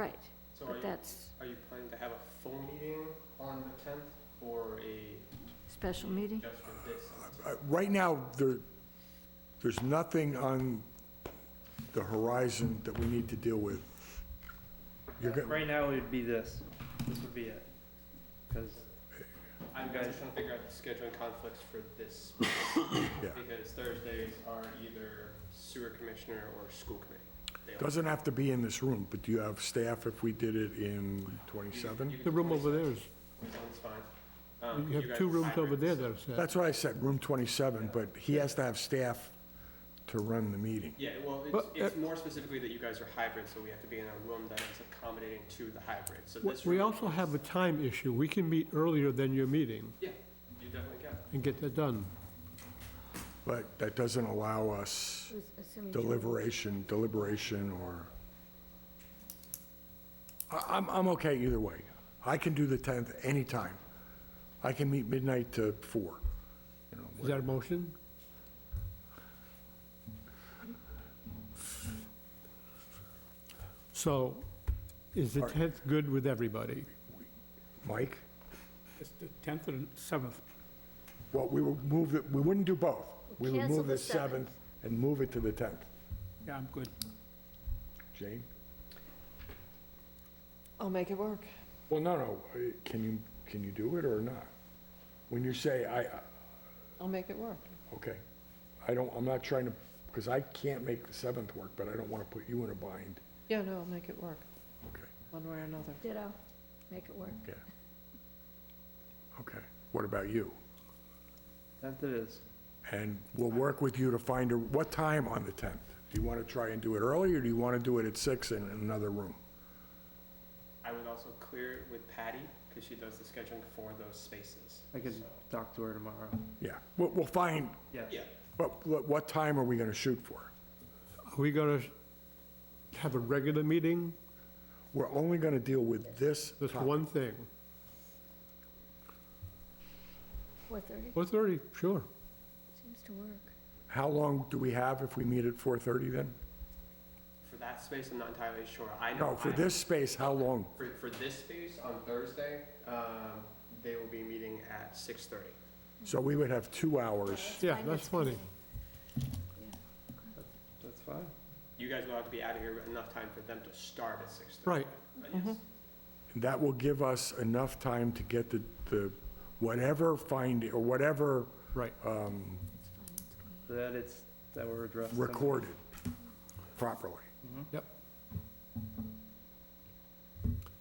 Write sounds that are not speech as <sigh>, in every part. Right, So are but you, that's are you planning to have a full meeting on the tenth or a special meeting? just for this? Uh, Right now, there, there's nothing on the horizon that we need to deal with. You're go- Right now, it would be this. This would be it. Because, I'm guys- just trying to figure out the scheduling conflicts for <coughs> this, Yeah. because Thursdays are either sewer commissioner or school committee. They are- Doesn't have to be in this room, but do you have staff if we did it in 27? you can The do room over there 27. is, That's fine. Um, you have guys two are rooms over there hybrids. that are set. That's what I said, room 27, but he has to have staff to run the meeting. Yeah, well, it's, But, uh, it's more specifically that you guys are hybrid, so we have to be in a room that is accommodating to the hybrid, so We- this. We room also is- have a time issue. We can meet earlier than your meeting Yeah, you definitely can. and get that done. But that doesn't allow us Assuming Joe- deliberation, deliberation, or... I- I'm, I'm okay either way. I can do the 10th anytime. I can meet midnight to 4, you know, Is that a motion? So is the All right. 10th good with everybody? Mike? It's the 10th and 7th. Well, we would move it, we wouldn't do both. We would Cancel move the the 7th and move it to the 10th. Yeah, I'm good. Jane? I'll make it work. Well, no, no, uh, can you, can you do it or not? When you say, I, I- I'll make it work. okay, I don't, I'm not trying to, because I can't make the 7th work, but I don't want to put you in a bind. Yeah, no, I'll make it work, Okay, one way or another. Ditto, make it work. okay. Okay, what about you? that it is. And we'll work with you to find, a what time on the 10th? Do you want to try and do it early, or do you want to do it at 6 in another room? I would also clear it with Patty, because she does the scheduling for those spaces. I could So, talk to her tomorrow. Yeah, we'll, we'll find, Yeah. Yeah, but what what time are we going to shoot for? Are we going to have a regular meeting? We're only going to deal with this. That's topic. one thing. 4:30 4:30, sure. seems to work. How long do we have if we meet at 4:30 then? for that space, I'm not entirely sure. I know. No, for I- this space, how long? For, for this space, on Thursday, um, they will be meeting at six thirty. So we would have two hours. Yeah, fine, that's that's funny. That's fine. You guys will have to be out of here enough time for them to start at six thirty. Right. Yes. And that will give us enough time to get the, the, whatever finding, or whatever Right. um, So that it's, that we're addressing. recorded properly.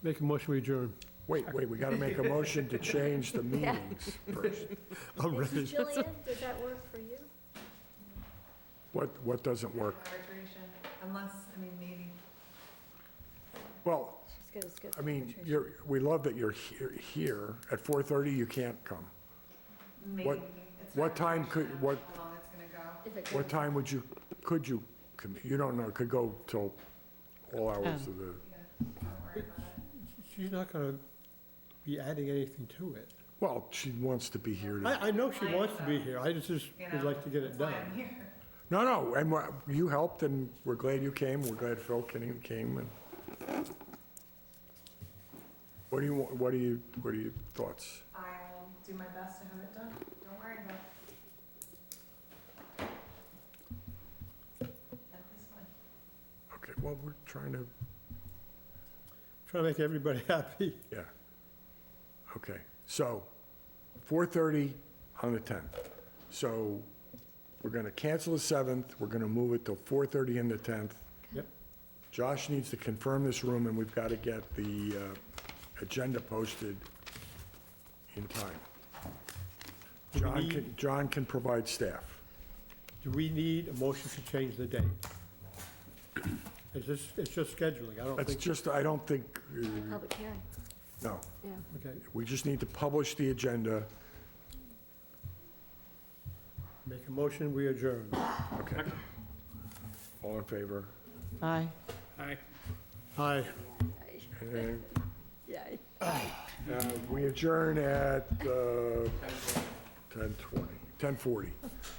Make a motion, we adjourn. Wait, wait, we got to make a motion to change <laughs> the meetings first. I'm ready. Mrs. Jillian, did that work for you? What, what doesn't work? arbitration, unless, I mean, maybe Well, She's got a schedule. I mean, you're, we love that you're here, here. At 4:30, you can't come. What- maybe. it's what not time sure could- what- How long it's gonna go. If it What goes- time would you, could you, commit? you don't know, it could go till all hours of the, Oh. Don't worry about it. She's not going to be adding anything to it. well, she wants to be here. to- I, I know she wants to be here, I just, just You would know, like to get it That's why I'm done. here. <laughs> No, no, and we're- you helped, and we're glad you came, we're glad Phil Kenny came, and... What do you, want- what do you, what are your thoughts? I'll do my best to have it done. Don't worry about it. At this point. Okay, well, we're trying to, Trying to make everybody <laughs> happy. yeah. Okay, so, 4:30 on the 10th. So, we're gonna cancel the 7th, we're gonna move it till 4:30 on the 10th. Yep. Josh needs to confirm this room, and we've got to get the uh, agenda posted in time. Do we John need- can, John can provide staff. Do we need a motion to change the date? It's just, it's just scheduling, I don't That's think, just, I don't think, uh, Public hearing, no, yeah. okay, we just need to publish the agenda. make a motion, we adjourn. Okay. All in favor? Aye. Aye. And, Yeah. uh, We adjourn at uh, 10:20, 10:40.